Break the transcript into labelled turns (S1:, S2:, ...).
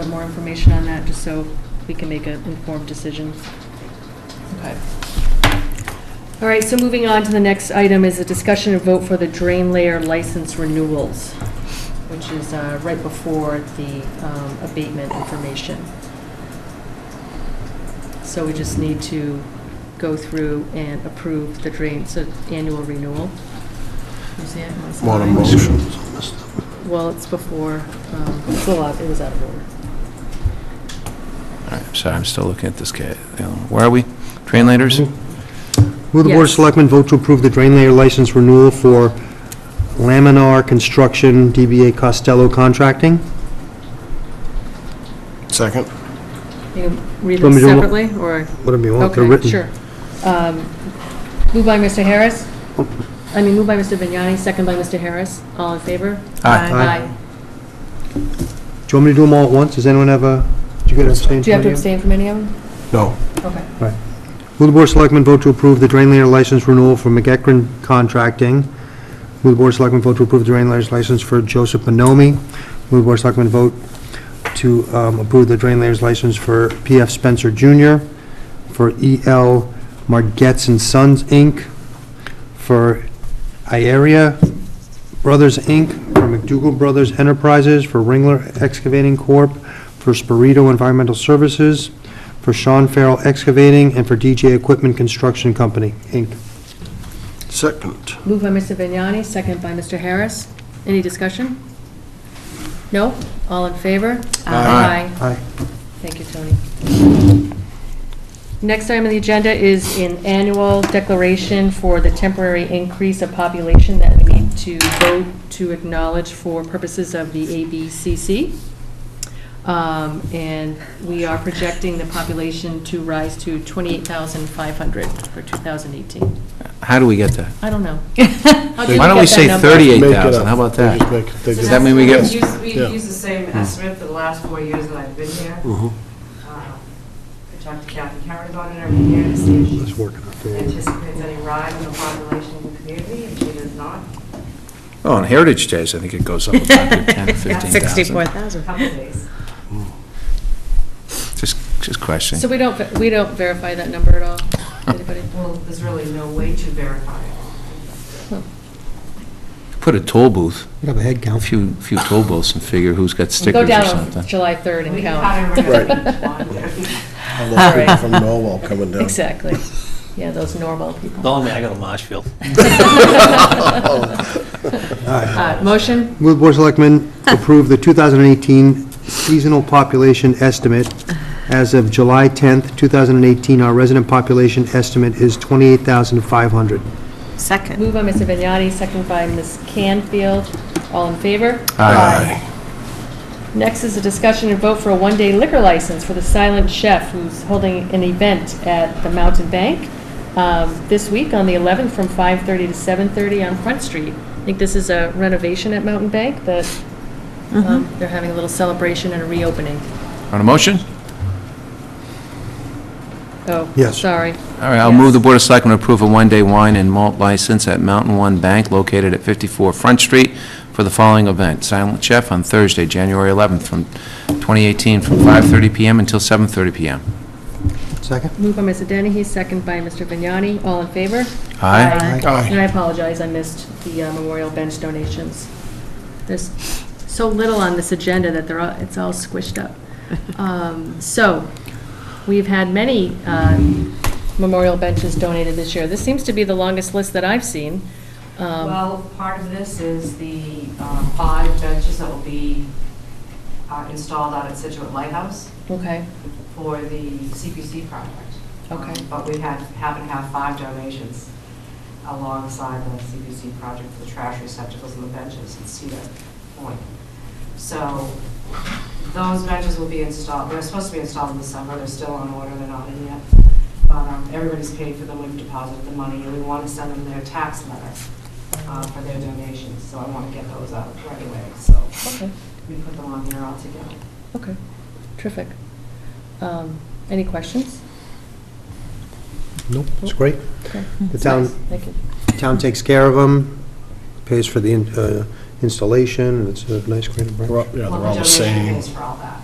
S1: more information on that, just so we can make an informed decision. Okay. All right, so moving on to the next item is a discussion and vote for the drain layer license renewals, which is uh, right before the um, abatement information. So we just need to go through and approve the drain, so annual renewal. You see it? It's
S2: Want a
S1: mine.
S2: motion?
S1: Well, it's before, um, it's a lot, it was out of order.
S3: All right, sorry, I'm still looking at this guy. Um, Where are we? Train laders?
S2: Will the Board of
S1: Yes.
S2: Selectmen vote to approve the drain layer license renewal for Laminar Construction, DBA Costello Contracting?
S4: Second.
S1: You can read them
S2: Want me to do
S1: separately, or?
S2: Whatever you want, they're
S1: Okay,
S2: written.
S1: sure. Um, Moved by Mr. Harris,
S2: Oh.
S1: I mean, moved by Mr. Vignani, second by Mr. Harris. All in favor?
S3: Aye.
S2: Aye. Do you want me to do them all at once? Does anyone have a, do you get abstained?
S1: Do you have to
S2: from
S1: abstain from any of them?
S4: No.
S1: Okay.
S2: any? Will the Board of Selectmen vote to approve the drain layer license renewal for McEckern Contracting? Will the Board of Selectmen vote to approve the drain layers license for Joseph Bonomi? Will the Board of Selectmen vote to um, approve the drain layers license for P.F. Spencer Jr., for E.L. Margetts and Sons, Inc., for Iaria Brothers, Inc., for McDougal Brothers Enterprises, for Ringler Excavating Corp., for Spirito Environmental Services, for Sean Farrell Excavating, and for DJ Equipment Construction Company, Inc.
S4: Second.
S1: Moved by Mr. Vignani, second by Mr. Harris. Any discussion? No? All in favor?
S4: Aye.
S2: Aye.
S1: Thank you, Tony. Next item on the agenda is an annual declaration for the temporary increase of population that we need to vote to acknowledge for purposes of the ABCC. Um, And we are projecting the population to rise to 28,500 for 2018.
S4: Mm-hmm.
S3: How do we get that?
S1: I don't know. How do you
S3: Why
S1: get
S3: don't we
S1: that
S3: say
S1: number?
S3: 38?
S4: Make it up.
S3: 8,000, how about
S4: They
S3: that?
S4: just make it- they
S3: Does
S4: just-
S3: that mean we get- Hmm.
S5: We
S4: Yeah.
S5: use the same estimate for the last four years that I've been here.
S3: Mm-hmm.
S4: Mhm.
S5: Uh, I talk to Kathy Karen about it every year to see if
S2: Let's
S5: she
S2: work it out for you.
S5: anticipates any rise in the population in the community, and she does not.
S3: Oh, on Heritage Days, I think it goes up about 10, 15,000.
S6: 64,000.
S5: Couple of days.
S3: Just, just
S1: So
S3: questioning.
S1: we don't, ve- we don't verify that number at all? Anybody?
S5: Well, there's really no way to verify it.
S3: Put a toll booth,
S2: You have a head
S3: a
S2: count.
S3: few, few toll booths and figure who's got
S1: Go
S3: stickers or
S1: down on
S3: something.
S1: July 3rd and
S5: We
S1: count.
S5: kind of remember each one.
S4: All those people from Norwell coming down.
S1: Exactly. Yeah, those normal people.
S7: Don't let me, I go to Marshfield.
S1: Uh, Motion?
S2: Will the Board of Selectmen approve the 2018 seasonal population estimate? As of July 10th, 2018, our resident population estimate is 28,500.
S6: Second.
S1: Move by Mr. Vignani, second by Ms. Canfield. All in favor?
S3: Aye.
S1: Next is a discussion and vote for a one-day liquor license for the Silent Chef, who's holding an event at the Mountain Bank um, this week on the 11th from 5:30 to 7:30 on Front Street. I think this is a renovation at Mountain Bank that um, they're having a little celebration and a reopening.
S3: On a motion?
S1: Oh,
S2: Yes.
S1: sorry.
S3: All right, I'll move the Board of Selectmen to approve a one-day wine and malt license at Mountain One Bank located at 54 Front Street for the following event, Silent Chef on Thursday, January 11th, from 2018, from 5:30 PM until 7:30 PM.
S2: Second?
S1: Moved by Mr. Dennehy, second by Mr. Vignani. All in favor?
S3: Aye.
S4: Aye.
S1: And I apologize, I missed the uh, memorial bench donations. There's so little on this agenda that they're, all- it's all squished up. Um, So, we've had many um, memorial benches donated this year. This seems to be the longest list that I've seen. Um,
S5: Well, part of this is the uh, five benches that will be uh, installed out at Situate Lighthouse.
S1: Okay,
S5: for the CPC project.
S1: Okay.
S5: Um, But we had, happen to have five donations alongside the CPC project for the trash receptacles and the benches at Cedar Point. So those benches will be installed, they're supposed to be installed in the summer, they're still on order, they're not in yet. But um, everybody's paid for them, we've deposited the money, and we want to send them their tax letter uh, for their donations, so I want to get those out right away, so
S1: okay,
S5: we put them on there all together.
S1: okay, terrific. Um, Any questions?
S2: Nope. It's great.
S1: Okay.
S2: The town-
S1: Nice, Thank you.
S2: Town takes care of them, pays for the in- uh, installation, and it's a nice, great...
S4: They're all- Yeah, they're
S5: Well,
S4: all the same.
S5: donation pays for all that.